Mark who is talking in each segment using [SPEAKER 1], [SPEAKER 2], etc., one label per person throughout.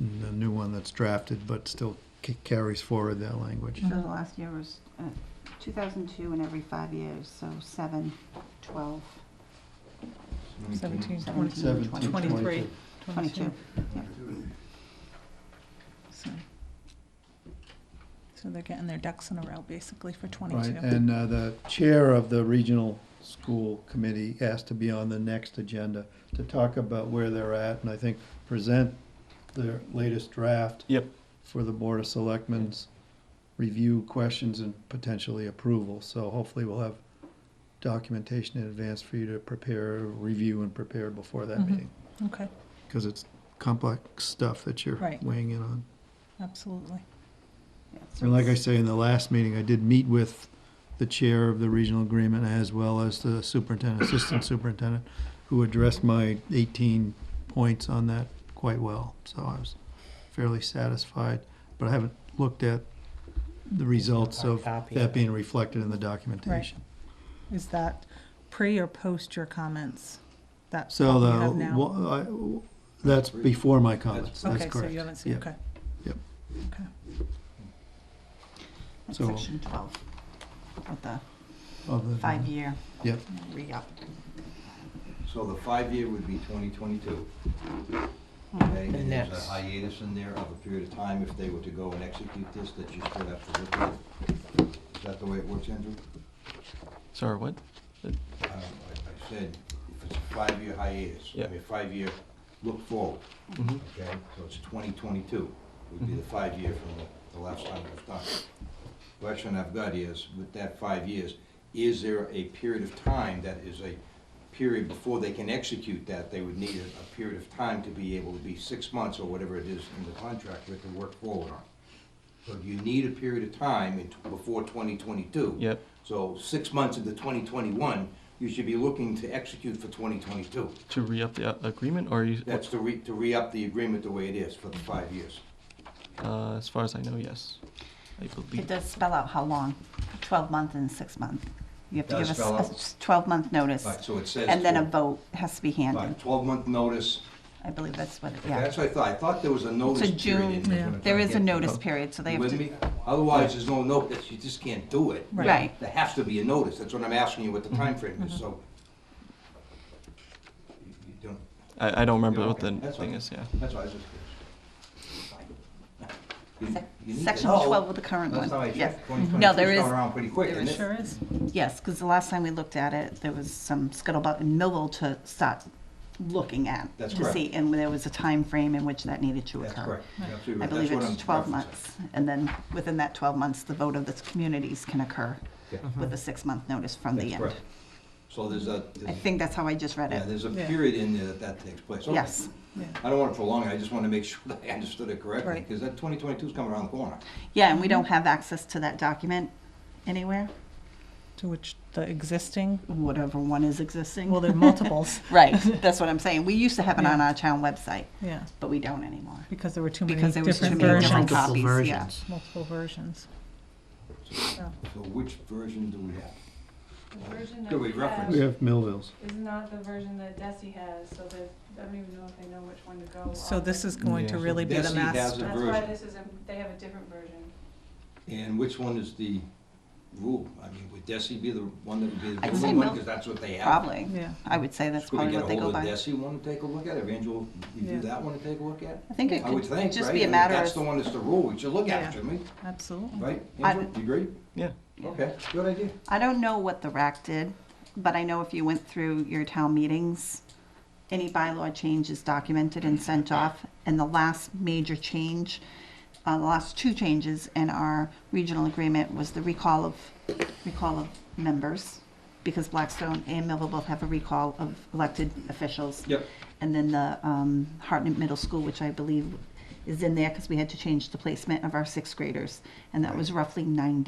[SPEAKER 1] in the new one that's drafted, but still ca- carries forward that language.
[SPEAKER 2] So the last year was uh, 2002 and every five years, so 7, 12,
[SPEAKER 3] 17,
[SPEAKER 2] 17,
[SPEAKER 3] 22,
[SPEAKER 1] 17,
[SPEAKER 3] 23.
[SPEAKER 2] 22.
[SPEAKER 3] So so they're getting their ducks in a row, basically, for
[SPEAKER 1] Right,
[SPEAKER 3] 22.
[SPEAKER 1] and uh, the chair of the regional school committee asked to be on the next agenda to talk about where they're at, and I think present their latest draft
[SPEAKER 4] Yep.
[SPEAKER 1] for the Board of Selectmen's review questions and potentially approval, so hopefully we'll have documentation in advance for you to prepare, review and prepare before that
[SPEAKER 3] Mhm.
[SPEAKER 1] meeting,
[SPEAKER 3] Okay,
[SPEAKER 1] because it's complex stuff that you're
[SPEAKER 3] Right.
[SPEAKER 1] weighing in on.
[SPEAKER 3] absolutely.
[SPEAKER 2] Yeah, so
[SPEAKER 1] And like I
[SPEAKER 2] it's-
[SPEAKER 1] say, in the last meeting, I did meet with the chair of the regional agreement as well as the superintendent, assistant superintendent, who addressed my eighteen points on that quite well, so I was fairly satisfied. But I haven't looked at the results of
[SPEAKER 5] Copy.
[SPEAKER 1] that being reflected in the documentation.
[SPEAKER 3] Is that pre or post your comments? That
[SPEAKER 1] So
[SPEAKER 3] you
[SPEAKER 1] the,
[SPEAKER 3] have now?
[SPEAKER 1] wha- I- that's before my comments, that's
[SPEAKER 3] Okay,
[SPEAKER 1] correct.
[SPEAKER 3] so you haven't seen,
[SPEAKER 1] Yeah.
[SPEAKER 3] okay.
[SPEAKER 1] Yep.
[SPEAKER 3] Okay.
[SPEAKER 2] that's
[SPEAKER 1] so-
[SPEAKER 2] Section 12, with the
[SPEAKER 1] Of the-
[SPEAKER 2] five-year
[SPEAKER 1] Yep,
[SPEAKER 2] re-up.
[SPEAKER 6] So the five-year would be 2022. Okay, and there's a
[SPEAKER 5] that's-
[SPEAKER 6] hiatus in there of a period of time if they were to go and execute this, that you still have to look at. Is that the way it works, Andrew?
[SPEAKER 4] Sorry, what?
[SPEAKER 6] Uh, I I said, if it's a five-year hiatus,
[SPEAKER 4] Yeah.
[SPEAKER 6] I mean, five-year, look forward,
[SPEAKER 4] Mhm.
[SPEAKER 6] okay? So it's 2022 would be the five-year from the- the last time it was done. Question I've got is, with that five years, is there a period of time that is a period before they can execute that? They would need a- a period of time to be able to be six months or whatever it is in the contract with to work forward on. So you need a period of time in t- before 2022.
[SPEAKER 4] Yep.
[SPEAKER 6] So six months into 2021, you should be looking to execute for 2022.
[SPEAKER 4] To re-up the uh, agreement, or are you?
[SPEAKER 6] That's to re, to re-up the agreement the way it is for the five years.
[SPEAKER 4] Uh, as far as I know, yes. I
[SPEAKER 2] It
[SPEAKER 4] believe.
[SPEAKER 2] does spell out how long, 12 month and six month. You have to
[SPEAKER 6] Does
[SPEAKER 2] give us
[SPEAKER 6] spell out.
[SPEAKER 2] a 12-month notice,
[SPEAKER 6] Right, so it says.
[SPEAKER 2] and then a
[SPEAKER 6] 12
[SPEAKER 2] vote has to be handed.
[SPEAKER 6] right, 12-month notice.
[SPEAKER 2] I believe that's what, it yeah.
[SPEAKER 6] That's what I thought. I thought there was a notice period
[SPEAKER 2] June,
[SPEAKER 6] in there.
[SPEAKER 3] yeah.
[SPEAKER 6] when I
[SPEAKER 2] There is a
[SPEAKER 6] get-
[SPEAKER 2] notice period, so they
[SPEAKER 6] You
[SPEAKER 2] have
[SPEAKER 6] with
[SPEAKER 2] to,
[SPEAKER 6] me? Otherwise, there's no notice. You just can't do it.
[SPEAKER 3] Right.
[SPEAKER 2] right,
[SPEAKER 6] There has to be a notice. That's what I'm asking you what the time frame is, so. You you don't,
[SPEAKER 4] I, I don't remember
[SPEAKER 6] Yeah,
[SPEAKER 4] what the
[SPEAKER 6] okay, that's
[SPEAKER 4] thing
[SPEAKER 6] fine.
[SPEAKER 4] is. Yeah.
[SPEAKER 6] that's why I was just. You-
[SPEAKER 2] Sec-
[SPEAKER 6] you need to
[SPEAKER 2] section
[SPEAKER 6] know.
[SPEAKER 2] 12 with the current
[SPEAKER 6] That's how I
[SPEAKER 2] one, yes.
[SPEAKER 6] checked. 2022
[SPEAKER 2] No, there
[SPEAKER 6] is
[SPEAKER 2] is-
[SPEAKER 6] going around pretty quick,
[SPEAKER 3] There
[SPEAKER 6] isn't
[SPEAKER 3] it
[SPEAKER 6] it?
[SPEAKER 3] sure is.
[SPEAKER 2] Yes, because the last time we looked at it, there was some scuttlebutt in Millville to start looking at.
[SPEAKER 6] That's
[SPEAKER 2] To
[SPEAKER 6] correct.
[SPEAKER 2] see, and there was a time frame in which that needed to
[SPEAKER 6] That's
[SPEAKER 2] occur.
[SPEAKER 6] correct. You're absolutely
[SPEAKER 2] I
[SPEAKER 6] right.
[SPEAKER 2] believe
[SPEAKER 6] That's what
[SPEAKER 2] it's
[SPEAKER 6] I'm
[SPEAKER 2] twelve
[SPEAKER 6] referencing.
[SPEAKER 2] months, and then within that twelve months, the vote of the communities can occur
[SPEAKER 6] Yeah.
[SPEAKER 2] with a six-month notice from the
[SPEAKER 6] Mm-hmm.
[SPEAKER 2] end.
[SPEAKER 6] That's correct. So there's a, there's
[SPEAKER 2] I
[SPEAKER 6] a-
[SPEAKER 2] think that's how I just read
[SPEAKER 6] yeah,
[SPEAKER 2] it.
[SPEAKER 6] there's a
[SPEAKER 3] Yeah.
[SPEAKER 6] period in there that that takes place. Okay.
[SPEAKER 2] Yes,
[SPEAKER 3] Yeah.
[SPEAKER 6] I don't want to prolong it, I just want to make sure that I understood it correctly,
[SPEAKER 3] Right.
[SPEAKER 6] because that 2022 is coming around the corner.
[SPEAKER 2] yeah, and we don't have access to that document anywhere,
[SPEAKER 3] To which the existing,
[SPEAKER 2] whatever one is existing.
[SPEAKER 3] well, there are multiples,
[SPEAKER 2] Right, that's what I'm saying. We used to have it on
[SPEAKER 3] Yeah.
[SPEAKER 2] our town website,
[SPEAKER 3] yeah,
[SPEAKER 2] but we don't anymore.
[SPEAKER 3] because there were too many
[SPEAKER 2] Because there was too
[SPEAKER 3] different
[SPEAKER 2] many different
[SPEAKER 3] versions.
[SPEAKER 2] copies, yeah.
[SPEAKER 1] versions.
[SPEAKER 3] Multiple versions.
[SPEAKER 6] So which version do we have?
[SPEAKER 7] The version
[SPEAKER 6] Do
[SPEAKER 7] that
[SPEAKER 6] we
[SPEAKER 7] we
[SPEAKER 6] reference
[SPEAKER 1] we
[SPEAKER 7] have
[SPEAKER 1] have Millville's.
[SPEAKER 7] is not the version that Desi has, so that, I don't even know if they know which one to go on.
[SPEAKER 3] So this is going to
[SPEAKER 4] Yeah.
[SPEAKER 3] really be the
[SPEAKER 6] Desi has
[SPEAKER 3] master.
[SPEAKER 6] a
[SPEAKER 7] That's why
[SPEAKER 6] version.
[SPEAKER 7] this is, a they have a different version.
[SPEAKER 6] And which one is the rule? I mean, would Desi be the one that would be the
[SPEAKER 2] I'd say
[SPEAKER 6] rule one,
[SPEAKER 2] Mil-
[SPEAKER 6] because that's what they have?
[SPEAKER 2] Probably.
[SPEAKER 3] Yeah.
[SPEAKER 2] I would say that's
[SPEAKER 6] Could we
[SPEAKER 2] probably
[SPEAKER 6] get
[SPEAKER 2] what
[SPEAKER 6] a
[SPEAKER 2] they go
[SPEAKER 6] hold of
[SPEAKER 2] by.
[SPEAKER 6] Desi one to take a look at, Evangel, you
[SPEAKER 3] Yeah.
[SPEAKER 6] do that one to take a look at?
[SPEAKER 2] I think it
[SPEAKER 6] I would
[SPEAKER 2] could
[SPEAKER 6] think,
[SPEAKER 2] just
[SPEAKER 6] right?
[SPEAKER 2] be
[SPEAKER 6] I
[SPEAKER 2] a
[SPEAKER 6] mean,
[SPEAKER 2] matter
[SPEAKER 6] That's the
[SPEAKER 2] of,
[SPEAKER 6] one that's the rule, we should look
[SPEAKER 3] Yeah.
[SPEAKER 6] at, shouldn't we?
[SPEAKER 3] Absolutely.
[SPEAKER 6] Right,
[SPEAKER 2] I-
[SPEAKER 6] Andrew, you agree?
[SPEAKER 4] Yeah.
[SPEAKER 6] Okay, good idea.
[SPEAKER 2] I don't know what the RAC did, but I know if you went through your town meetings, any bylaw change is documented and sent off. And the last major change, uh, the last two changes in our regional agreement was the recall of, recall of members. Because Blackstone and Millville both have a recall of elected officials.
[SPEAKER 6] Yep.
[SPEAKER 2] And then the um, Hartnett Middle School, which I believe is in there because we had to change the placement of our sixth graders. And that was roughly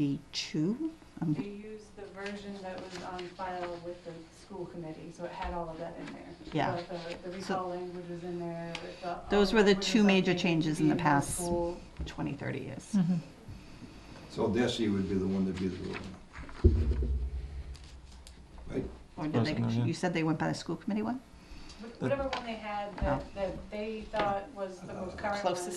[SPEAKER 2] 92. Um,
[SPEAKER 7] We used the version that was on file with the school committee, so it had all of that in there.
[SPEAKER 2] Yeah.
[SPEAKER 7] So The the
[SPEAKER 2] So-
[SPEAKER 7] recall language was in there. the-
[SPEAKER 2] Those were the
[SPEAKER 7] language
[SPEAKER 2] two
[SPEAKER 7] was
[SPEAKER 2] major
[SPEAKER 7] updated to
[SPEAKER 2] changes in
[SPEAKER 7] be
[SPEAKER 2] the
[SPEAKER 7] middle
[SPEAKER 2] past
[SPEAKER 7] school.
[SPEAKER 2] 20, 30
[SPEAKER 4] Hmm.
[SPEAKER 2] years.
[SPEAKER 3] Mhm.
[SPEAKER 6] So Desi would be the one that'd be the rule. Right?
[SPEAKER 2] Or did
[SPEAKER 4] Close
[SPEAKER 2] they,
[SPEAKER 4] enough, yeah.
[SPEAKER 2] you said they went by the school committee one?
[SPEAKER 7] Wh- Whatever one they had that, that they thought was the most current one.
[SPEAKER 2] Oh. Closest